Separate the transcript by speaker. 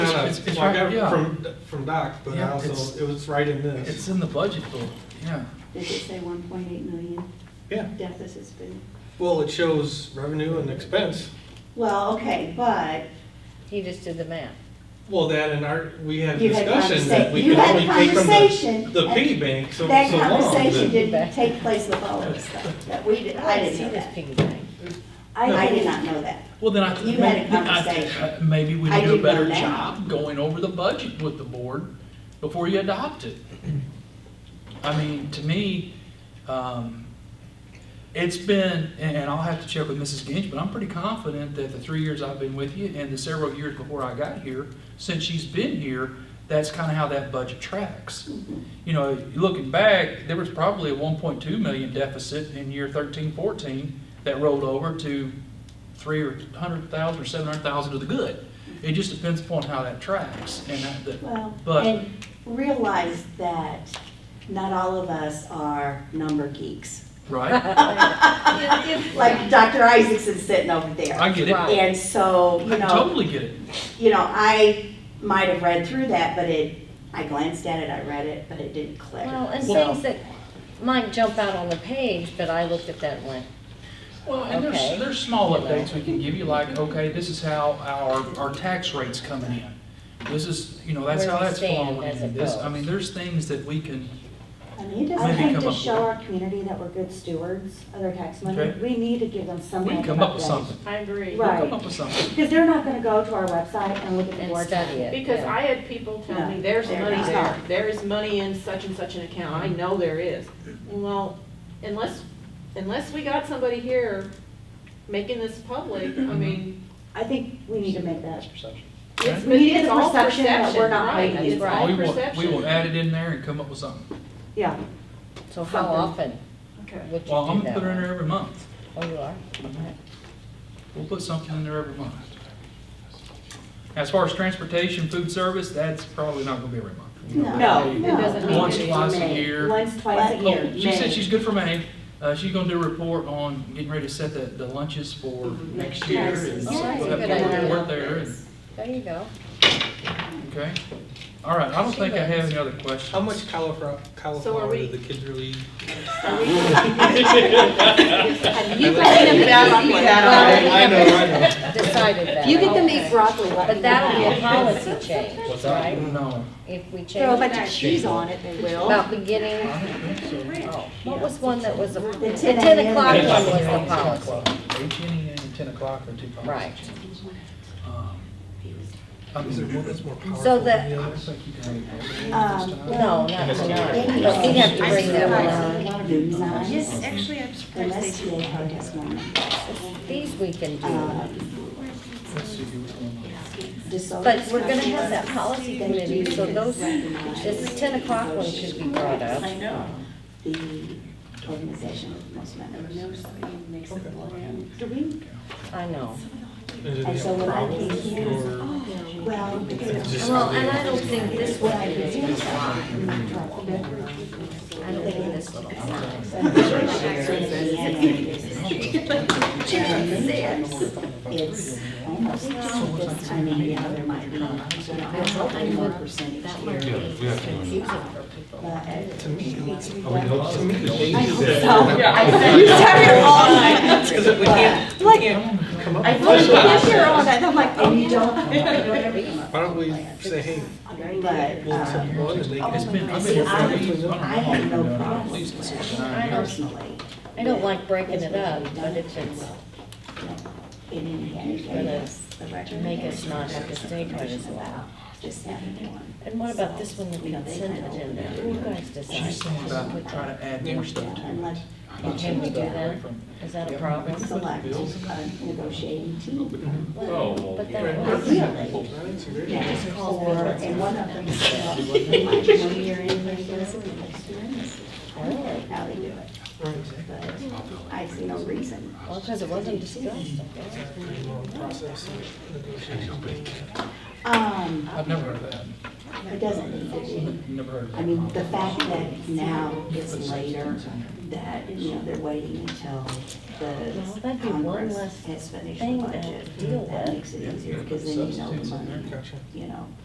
Speaker 1: it's, it's
Speaker 2: Well, I
Speaker 1: right,
Speaker 2: got it
Speaker 1: yeah,
Speaker 2: from, from Doc, but I
Speaker 1: Yeah, it's-
Speaker 2: also, it was right in
Speaker 1: it's
Speaker 2: this.
Speaker 1: in the budget book, yeah.
Speaker 3: Did it say one point eight million
Speaker 2: Yeah,
Speaker 3: deficit's been,
Speaker 2: well, it shows revenue and expense.
Speaker 3: well, okay, but
Speaker 4: He just did the math.
Speaker 2: Well, that and our, we had
Speaker 3: You had
Speaker 2: discussion
Speaker 3: conversa-
Speaker 2: that we
Speaker 3: you
Speaker 2: could
Speaker 3: had
Speaker 2: only take from
Speaker 3: conversation,
Speaker 2: the, the
Speaker 3: and
Speaker 2: piggy bank so, so long.
Speaker 3: that conversation
Speaker 2: that-
Speaker 3: didn't take place with all of us, though, that we, did- I didn't
Speaker 4: see
Speaker 3: know
Speaker 4: this
Speaker 3: that.
Speaker 4: piggy bank.
Speaker 3: I, I did not know that.
Speaker 1: Well, then I think,
Speaker 3: You had a
Speaker 1: maybe, then I think,
Speaker 3: conversation.
Speaker 1: uh, maybe we
Speaker 3: I
Speaker 1: do a
Speaker 3: do
Speaker 1: better
Speaker 3: know now.
Speaker 1: job going over the budget with the board before you adopt it. I mean, to me, um, it's been, and, and I'll have to check with Mrs. Ginch, but I'm pretty confident that the three years I've been with you and the several years before I got here, since she's been here, that's kinda how that budget tracks. You know, looking back, there was probably a one point two million deficit in year thirteen, fourteen that rolled over to three or hundred thousand or seven hundred thousand to the good. It just depends upon how that tracks and that, that-
Speaker 3: Well,
Speaker 1: But-
Speaker 3: and realize that not all of us are number geeks,
Speaker 1: right?
Speaker 3: like Dr. Isaacson's sitting over
Speaker 1: I
Speaker 3: there.
Speaker 1: get it. I
Speaker 3: And so, you know,
Speaker 1: totally get it.
Speaker 3: you know, I might have read through that, but it, I glanced at it, I read it, but it didn't click.
Speaker 4: Well, and
Speaker 1: Well-
Speaker 4: things that might jump out on the page, but I looked at that and went,
Speaker 1: Well, and
Speaker 4: Okay.
Speaker 1: there's, there's small updates we can give you, like, okay, this is how our, our tax rate's coming in. This is, you know, that's
Speaker 4: Where
Speaker 1: how
Speaker 4: we
Speaker 1: that's
Speaker 4: stand
Speaker 1: flowing
Speaker 4: as
Speaker 1: in.
Speaker 4: it
Speaker 1: This, I
Speaker 4: goes.
Speaker 1: mean, there's things that we can,
Speaker 5: I mean, it doesn't
Speaker 1: Maybe
Speaker 5: hurt
Speaker 1: come
Speaker 5: to
Speaker 1: up
Speaker 5: show
Speaker 1: with-
Speaker 5: our community that we're good stewards of their tax money.
Speaker 1: Okay.
Speaker 5: We need to give them
Speaker 1: we
Speaker 5: something.
Speaker 1: can come up with
Speaker 5: about that.
Speaker 1: something.
Speaker 6: I agree.
Speaker 1: We'll come
Speaker 5: Right.
Speaker 1: up with something.
Speaker 5: Because they're not gonna go to our website and look at the
Speaker 4: and
Speaker 5: board.
Speaker 4: study it.
Speaker 6: Because
Speaker 4: yeah.
Speaker 6: I had people tell me, there's
Speaker 3: They're
Speaker 6: money
Speaker 3: not.
Speaker 6: there, there is money in such and such an account, I know there is. Well, unless, unless we got somebody here making this public, I
Speaker 1: Mm-hmm.
Speaker 6: mean,
Speaker 5: I think we need to make that.
Speaker 6: it's,
Speaker 5: We need
Speaker 6: it's
Speaker 5: the
Speaker 6: all
Speaker 5: perception that
Speaker 6: perception,
Speaker 5: we're not
Speaker 6: right,
Speaker 5: making it.
Speaker 6: it's
Speaker 4: Right.
Speaker 6: all
Speaker 1: We will, we will
Speaker 6: perception.
Speaker 1: add it in there and come up with something.
Speaker 5: Yeah,
Speaker 4: So how often
Speaker 5: something.
Speaker 6: Okay.
Speaker 4: would you do that?
Speaker 1: Well, I'm gonna put it in
Speaker 4: one?
Speaker 1: there every month.
Speaker 4: Oh, you are?
Speaker 1: We'll put something in there every month. As far as transportation, food service, that's probably not gonna be every month. You know,
Speaker 3: No.
Speaker 1: maybe
Speaker 5: No.
Speaker 6: It doesn't mean
Speaker 1: Once,
Speaker 6: it's
Speaker 1: twice a
Speaker 5: May.
Speaker 1: year.
Speaker 5: Once, twice
Speaker 3: Once-
Speaker 5: a year.
Speaker 1: Oh, she said
Speaker 5: May.
Speaker 1: she's good for May. Uh, she's gonna do a report on getting ready to set the, the lunches for next year. and
Speaker 3: Yes,
Speaker 1: we'll
Speaker 4: yes,
Speaker 1: have
Speaker 4: good
Speaker 1: people
Speaker 4: idea.
Speaker 1: work there and-
Speaker 4: There you go.
Speaker 1: Okay. All right, I don't
Speaker 4: She
Speaker 1: think I have
Speaker 4: knows.
Speaker 1: any other questions.
Speaker 2: How much cauliflower, cauliflower
Speaker 6: we-
Speaker 2: did the kids really?
Speaker 6: You can eat about
Speaker 2: I
Speaker 4: that
Speaker 2: know, I know.
Speaker 4: Decided that.
Speaker 5: You get them to
Speaker 4: Okay.
Speaker 5: eat broccoli, let
Speaker 4: But
Speaker 5: me
Speaker 4: that'll be
Speaker 5: know.
Speaker 4: a policy change, right?
Speaker 1: No.
Speaker 4: If we
Speaker 5: Throw a
Speaker 4: change
Speaker 5: bunch
Speaker 4: that.
Speaker 5: of cheese on it, they will.
Speaker 4: About beginning,
Speaker 1: I don't think so.
Speaker 4: oh, what was one that was, a- the
Speaker 5: 10
Speaker 4: ten
Speaker 5: a.m.
Speaker 4: o'clock
Speaker 5: That
Speaker 4: one
Speaker 5: Yeah.
Speaker 4: was the policy.
Speaker 1: HNEA and ten o'clock are two policy
Speaker 4: Right.
Speaker 1: changes. Um, I mean, well, that's more
Speaker 4: So
Speaker 2: powerful
Speaker 4: the-
Speaker 2: than
Speaker 1: I
Speaker 2: others.
Speaker 1: think you can have it this
Speaker 3: Um,
Speaker 1: time.
Speaker 4: No, not tonight, but we have to bring that one up.
Speaker 3: Yes,
Speaker 7: Actually, I'm surprised they
Speaker 3: Unless
Speaker 7: didn't.
Speaker 3: you have this one,
Speaker 4: These we can do,
Speaker 3: um,
Speaker 1: Let's see what's going on.
Speaker 3: disorder.
Speaker 4: but we're gonna have that policy committee, so those, this ten o'clock one should be brought up.
Speaker 3: I know. The organization of most members. Do we,
Speaker 4: I know.
Speaker 2: Is it
Speaker 3: And so
Speaker 2: a
Speaker 3: when I
Speaker 2: problem
Speaker 3: came here-
Speaker 2: or
Speaker 3: well,
Speaker 2: it's just?
Speaker 4: Well, and I don't think this one is in I don't think this little one.
Speaker 3: it's almost, I mean, yeah, there might be, you know, I'm hoping more percentage here. But
Speaker 2: To me, to me, the changes
Speaker 3: hope
Speaker 2: that.
Speaker 3: so.
Speaker 5: You started all night.
Speaker 2: we can't, we can't come up with.
Speaker 5: Well, you
Speaker 2: something.
Speaker 5: live here all night, I'm like,
Speaker 3: And you
Speaker 5: oh,
Speaker 3: don't, you don't ever come up
Speaker 2: Why don't
Speaker 3: with
Speaker 2: we
Speaker 3: a plan.
Speaker 2: say, hey,
Speaker 3: But,
Speaker 2: we'll
Speaker 3: uh,
Speaker 2: accept one and they
Speaker 1: It's
Speaker 2: can.
Speaker 1: been, I've
Speaker 3: See,
Speaker 1: been.
Speaker 3: I-
Speaker 1: here for-
Speaker 3: I had no
Speaker 1: don't know,
Speaker 3: problem
Speaker 1: at least
Speaker 3: with
Speaker 1: six
Speaker 3: it.
Speaker 1: or nine years.
Speaker 3: personally.
Speaker 4: I don't like breaking it up, but if it's
Speaker 3: In any case, the record.
Speaker 4: make us not have to stay quite as long.
Speaker 3: Just having one.
Speaker 4: And what about this one, the consent agenda? You guys
Speaker 1: She's
Speaker 4: decide.
Speaker 1: saying about trying to add more stuff to it.
Speaker 3: And let,
Speaker 4: Can we do that? Is that a problem?
Speaker 3: select a negotiating team.
Speaker 1: Oh,
Speaker 4: Well, But that was,
Speaker 3: Really? Yeah, or, and one of them is, uh, when you're in the experience, I don't know how they do it. But I see no reason.
Speaker 4: well, because it wasn't discussed, I guess.
Speaker 3: Um,
Speaker 1: I've never heard of that.
Speaker 3: it doesn't need to be.
Speaker 1: Never heard of
Speaker 3: I
Speaker 1: that.
Speaker 3: mean, the fact that now it's later, that, you know, they're waiting until
Speaker 4: Well,
Speaker 3: the
Speaker 4: that'd be one less
Speaker 3: Congress has finished the
Speaker 4: thing to
Speaker 3: budget,
Speaker 4: deal
Speaker 3: that
Speaker 4: with.
Speaker 3: makes it easier, because then you know the money, you know.